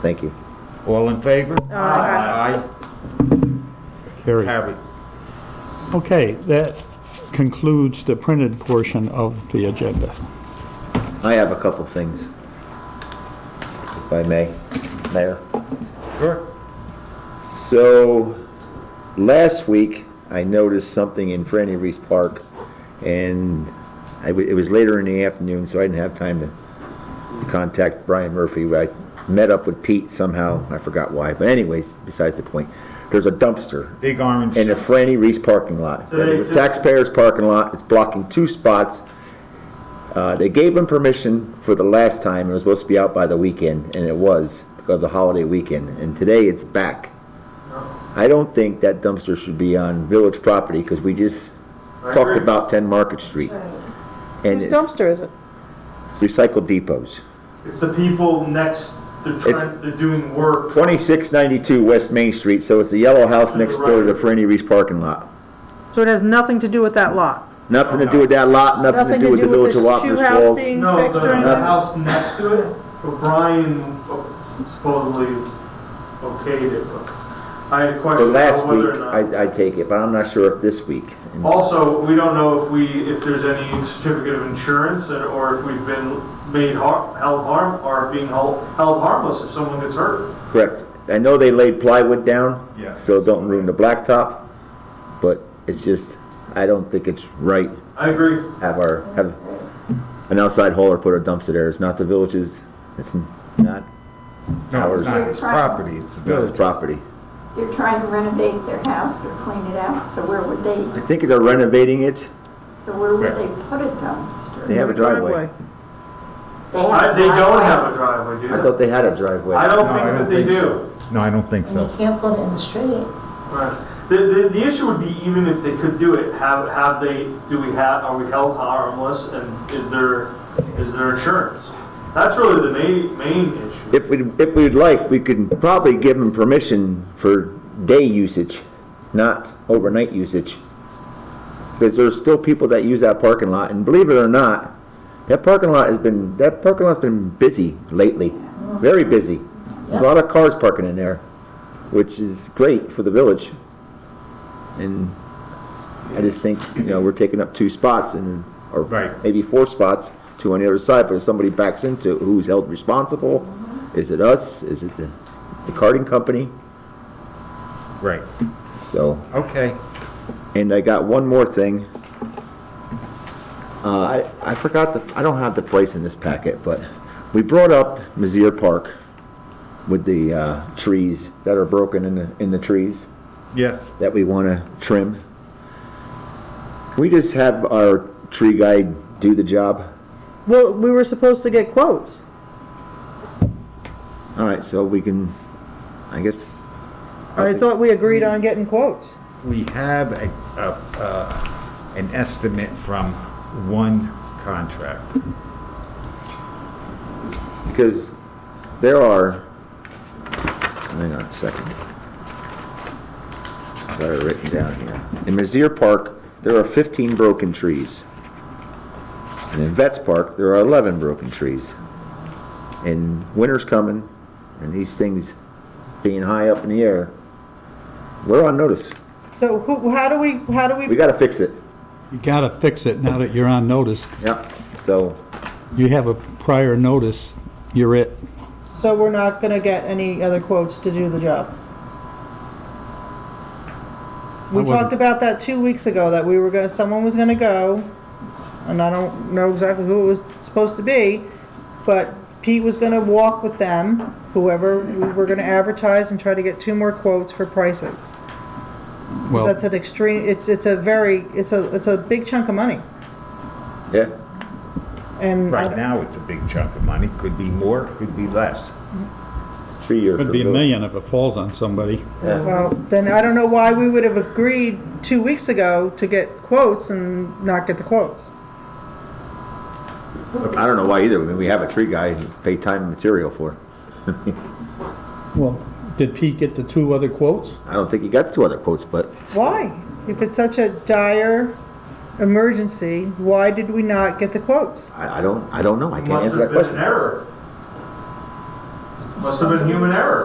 Thank you. All in favor? Aye. Carried. Carried. Okay, that concludes the printed portion of the agenda. I have a couple things. If I may, Mayor. Sure. So, last week, I noticed something in Franny Reese Park, and I w it was later in the afternoon, so I didn't have time to contact Brian Murphy. I met up with Pete somehow, I forgot why, but anyways, besides the point, there's a dumpster Big orange. in the Franny Reese parking lot. It's a taxpayer's parking lot, it's blocking two spots. Uh, they gave them permission for the last time, it was supposed to be out by the weekend, and it was, because of the holiday weekend, and today it's back. I don't think that dumpster should be on village property, because we just talked about ten Market Street. And Whose it's dumpster is it? recycle depots. It's the people next, they're It's- trying, they're doing work. Twenty-six ninety-two West Main Street, so it's the yellow house next door to the Franny Reese parking lot. So it has nothing to do with that lot? Nothing to do with that lot, nothing to do with the village of shoe Wapner's house Falls. being No, the, fixed or the anything? house next to it, but Brian uh, supposedly okayed it, but I had a The question last about whether week, or not. I, I take it, but I'm not sure if this week. Also, we don't know if we, if there's any certificate of insurance and, or if we've been made har, held harm, or being held, held harmless if someone gets hurt. Correct. I know they laid plywood down. Yes. So don't ruin the blacktop, but it's just, I don't think it's right I agree. have our, have an outside hauler put a dumpster there. It's not the village's, it's not No, it's Ours. not, it's property, it's the village village. property. They're trying to renovate their house or clean it out, so where would I they, think they're renovating it. so where would they Right. put a dumpster? They have a driveway. have I, a they don't driveway, have a driveway, do I they? thought they had a driveway. I No, I don't think that don't they think do. so. No, I don't think so. You can't put it in the street. Right. The, the, the issue would be even if they could do it, have, have they, do we have, are we held harmless and is there, is there insurance? That's really the main, main issue. If we, if we'd like, we could probably give them permission for day usage, not overnight usage. Because there's still people that use that parking lot, and believe it or not, that parking lot has been, that parking lot's been busy lately, very busy. A lot of cars parking in there, which is great for the village. And I just think, you know, we're taking up two spots and, or Right. maybe four spots, two on the other side, but if somebody backs into, it, who's held responsible? Is it us? Is it the, the carting company? Right. So, Okay. and I got one more thing. Uh, I, I forgot the, I don't have the price in this packet, but we brought up Mizzier Park with the, uh, trees that are broken in the, in the trees. Yes. that we want to trim. Can we just have our tree guy do the job? Well, we were supposed to get quotes. All right, so we can, I guess, I thought we agreed on getting quotes. We have a, a, uh, an estimate from one contract. because there are, hang on a second. I've got it written down here. In Mizzier Park, there are 15 broken trees. And in Vets Park, there are 11 broken trees. And winter's coming, and these things being high up in the air, we're on notice. So who, how do we, how do We we, gotta fix it. You gotta fix it now that you're on notice. Yep. So, You have a prior notice, you're it. so we're not gonna get any other quotes to do the job? We I wasn't- talked about that two weeks ago, that we were gonna, someone was gonna go, and I don't know exactly who it was supposed to be, but Pete was gonna walk with them, whoever, we were gonna advertise and try to get two more quotes for prices. Well, That's an extreme, it's, it's a very, it's a, it's a big chunk of money, yeah, and. I Right don't- now, it's a big chunk of money. Could be more, could be less. it's tree year. Could be a million if it falls on somebody. Yeah. Well, then I don't know why we would have agreed two weeks ago to get quotes and not get the quotes. I don't know why either. I mean, we have a tree guy and pay time and material for. Well, did Pete get the two other quotes? I don't think he got two other quotes, but Why? If it's such a dire emergency, why did we not get the quotes? I, I don't, I don't know. I can't Must answer have that been an question. error. Must have been human error.